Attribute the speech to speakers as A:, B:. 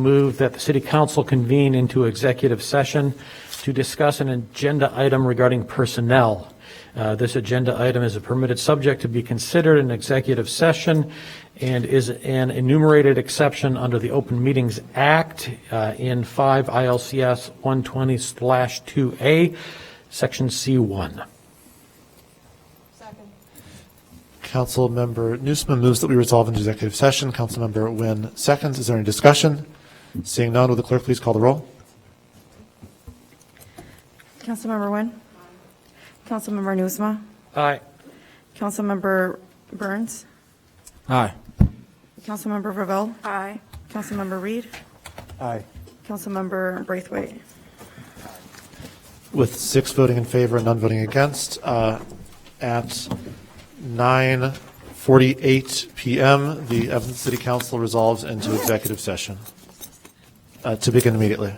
A: Move that the city council convene into executive session to discuss an agenda item regarding personnel. Uh, This agenda item is a permitted subject to be considered in executive session and is an enumerated exception under the Open Meetings Act uh, in 5 ILCS 120/2A, Section C1.
B: Second.
C: Councilmember Newsome moves that we resolve into executive session. Councilmember Wynn seconds. Is there any discussion? Seeing none, will the clerk please call the roll?
D: Councilmember Nguyen? Councilmember Nusma?
A: Aye.
D: Councilmember Burns?
E: Aye.
D: Councilmember Ravel? Aye. Councilmember Reed?
E: Aye.
D: Councilmember Braithwaite?
C: With six voting in favor and none voting against, uh, at 9:48 PM, the Evanston City Council resolves into executive session uh, to begin immediately.